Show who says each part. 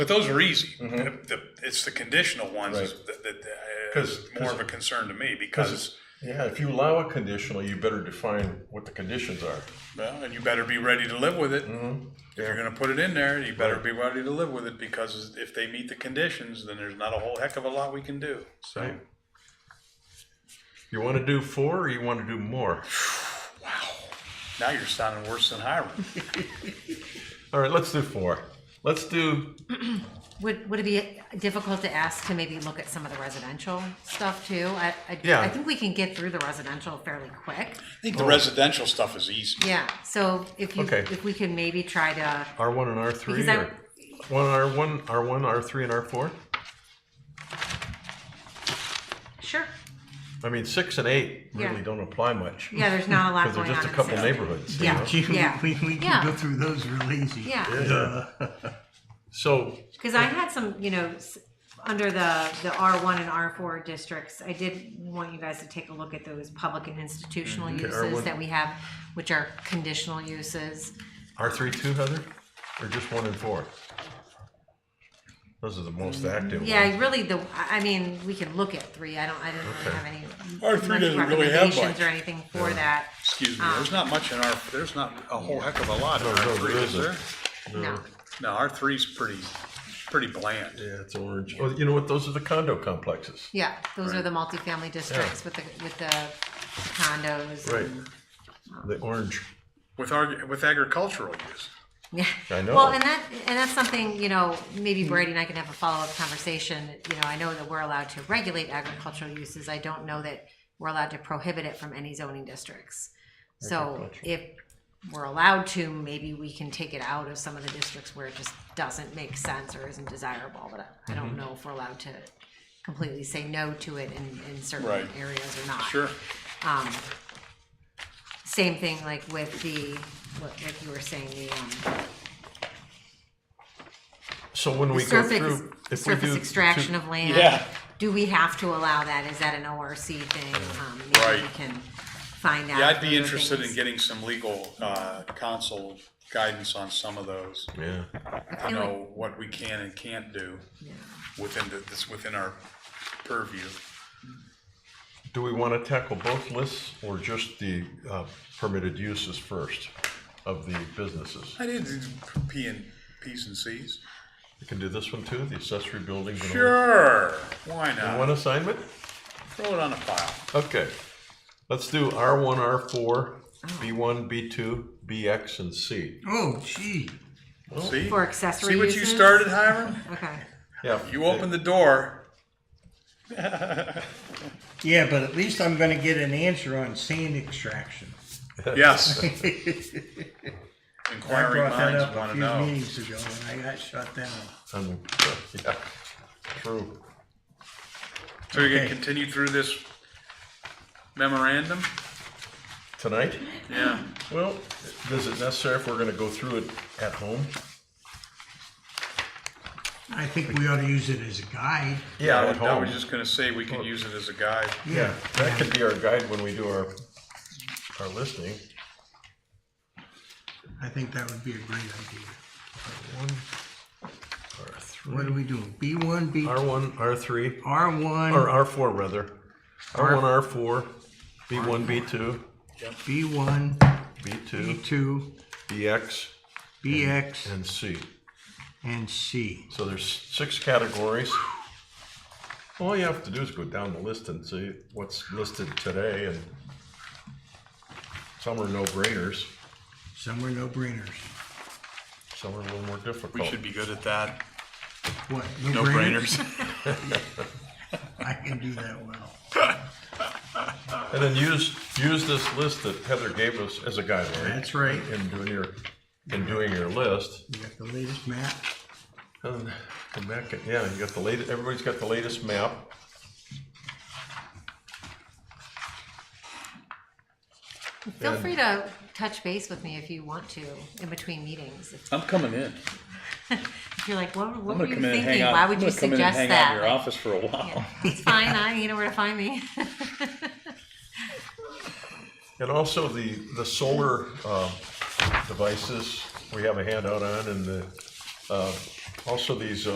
Speaker 1: But those are easy. The- the- It's the conditional ones
Speaker 2: Right.
Speaker 1: that, that, uh,
Speaker 2: 'Cause-
Speaker 1: is more of a concern to me because,
Speaker 2: Yeah, if you allow a conditional, you better define what the conditions are.
Speaker 1: well, and you better be ready to live with it. If you're gonna put it in there, you better be ready to live with it because if they meet the conditions, then there's not a whole heck of a lot we can do. So,
Speaker 2: You want to do four or you want to do more?
Speaker 1: now you're sounding worse than Hiram.
Speaker 2: All right, let's do four. Let's do,
Speaker 3: Would, would it be difficult to ask to maybe look at some of the residential stuff too? I, I,
Speaker 2: Yeah.
Speaker 3: I think we can get through the residential fairly quick.
Speaker 1: I think the residential stuff is easy.
Speaker 3: Yeah, so if you,
Speaker 2: Okay.
Speaker 3: if we can maybe try to,
Speaker 2: R1 and R3?
Speaker 3: Because I-
Speaker 2: or One R1, R1, R3, and R4?
Speaker 3: sure,
Speaker 2: I mean, six and eight really
Speaker 3: Yeah.
Speaker 2: don't apply much.
Speaker 3: yeah, there's not a lot
Speaker 2: Because they're
Speaker 3: going on.
Speaker 2: just a
Speaker 3: in
Speaker 2: couple
Speaker 3: Salem.
Speaker 2: neighborhoods. you
Speaker 3: Yeah.
Speaker 2: know?
Speaker 4: We, we, we can
Speaker 3: Yeah.
Speaker 4: go through those real easy.
Speaker 3: Yeah,
Speaker 2: So,
Speaker 3: because I had some, you know, s- under the, the R1 and R4 districts, I did want you guys to take a look at those public and institutional uses
Speaker 2: R1.
Speaker 3: that we have, which are conditional uses.
Speaker 2: R3 too, Heather? Or just one and four? Those are the most active ones.
Speaker 3: Yeah, really, the, I I mean, we can look at three, I don't, I didn't really have any.
Speaker 1: R three
Speaker 3: much
Speaker 1: doesn't really have
Speaker 3: recommendations Ah.
Speaker 1: much.
Speaker 3: Or anything for that,
Speaker 1: Excuse me, there's not much in our, there's not a whole heck of a lot in
Speaker 2: No, no,
Speaker 1: R three,
Speaker 2: there
Speaker 1: is there?
Speaker 2: isn't.
Speaker 3: no,
Speaker 1: No, R three's pretty, pretty bland.
Speaker 2: Yeah, it's orange. Well, you know what? Those are the condo complexes.
Speaker 3: yeah, those are the multifamily districts with the, with the condos.
Speaker 2: Right. The orange.
Speaker 1: With our, with agricultural use.
Speaker 3: Yeah.
Speaker 2: I know.
Speaker 3: Well, and that, and that's something, you know, maybe Brady and I can have a follow-up conversation. You know, I know that we're allowed to regulate agricultural uses. I don't know that we're allowed to prohibit it from any zoning districts. So if we're allowed to, maybe we can take it out of some of the districts where it just doesn't make sense or isn't desirable. But I- I don't know if we're allowed to completely say no to it in, in certain
Speaker 1: Right.
Speaker 3: areas or not.
Speaker 1: Sure.
Speaker 3: Um, same thing like with the, what, like you were saying, the, um,
Speaker 2: So when we go
Speaker 3: surface,
Speaker 2: through, if we
Speaker 3: surface
Speaker 2: do.
Speaker 3: extraction of land,
Speaker 1: Yeah.
Speaker 3: do we have to allow that? Is that an ORC thing? Um,
Speaker 1: Right.
Speaker 3: Maybe we can find out.
Speaker 1: Yeah, I'd be
Speaker 3: through
Speaker 1: interested in
Speaker 3: things.
Speaker 1: getting some legal uh, counsel guidance on some of those.
Speaker 2: Yeah,
Speaker 3: I
Speaker 1: You
Speaker 3: feel like-
Speaker 1: know, what we can and can't do
Speaker 3: yeah.
Speaker 1: within the, this, within our purview.
Speaker 2: do we want to tackle both lists or just the uh, permitted uses first of the businesses?
Speaker 1: I did do P and, Ps and Cs.
Speaker 2: We can do this one too, the accessory buildings. and all.
Speaker 1: Sure, why
Speaker 2: One
Speaker 1: not?
Speaker 2: assignment?
Speaker 1: Throw it on a file.
Speaker 2: Okay, let's do R one, R four, B one, B two, BX, and C.
Speaker 4: Oh, gee.
Speaker 1: See?
Speaker 3: For accessory
Speaker 1: See what you
Speaker 3: uses?
Speaker 1: started, Hiram?
Speaker 3: Okay,
Speaker 2: Yeah.
Speaker 1: You opened the door.
Speaker 4: Yeah, but at least I'm going to get an answer on sand extraction.
Speaker 1: Yes.
Speaker 4: I
Speaker 1: Inquiring
Speaker 4: brought that
Speaker 1: minds
Speaker 4: up
Speaker 1: want to
Speaker 4: a few
Speaker 1: know.
Speaker 4: meetings ago and I got shut down.
Speaker 2: Um, yeah, True.
Speaker 1: So you're gonna
Speaker 4: Okay.
Speaker 1: continue through this memorandum?
Speaker 2: Tonight?
Speaker 1: Yeah.
Speaker 2: Well, is it necessary if we're gonna go through it at home?
Speaker 4: I think we ought to use it as a guide.
Speaker 1: I
Speaker 2: At
Speaker 1: was- I
Speaker 2: home.
Speaker 1: was just gonna say we could use it as a guide.
Speaker 2: Yeah, that could be our guide when we do our, our listing.
Speaker 4: I think that would be a great idea.
Speaker 2: One, R
Speaker 4: What are
Speaker 2: three,
Speaker 4: we doing? B1, B2,
Speaker 2: R one, R three, or
Speaker 4: R1,
Speaker 2: R four rather. R one, R four, B one, B two,
Speaker 4: B1,
Speaker 2: B two,
Speaker 4: B2,
Speaker 2: BX,
Speaker 4: BX,
Speaker 2: and C.
Speaker 4: and C.
Speaker 2: So there's six categories. All you have to do is go down the list and see what's listed today and some are no-brainers,
Speaker 4: Some are no-brainers.
Speaker 2: some are a little more difficult.
Speaker 1: We should be good at that.
Speaker 4: What?
Speaker 1: No brainers.
Speaker 4: I can do that well.
Speaker 2: And then use, use this list that Heather gave us as a guideline
Speaker 4: That's right.
Speaker 2: in doing your, in doing your list.
Speaker 4: You got the latest map.
Speaker 2: And go back, and- yeah, you got Oh, the latest, everybody's got the latest map.
Speaker 3: feel free to touch base with me if you want to in between meetings. If
Speaker 1: I'm coming in.
Speaker 3: if you're like, what, what were you thinking? Why would you suggest that?
Speaker 1: office for a while.
Speaker 3: It's fine, I, you know where to find me.
Speaker 2: And also the, the solar uh, devices, we have a handout on, and the, uh, also these uh,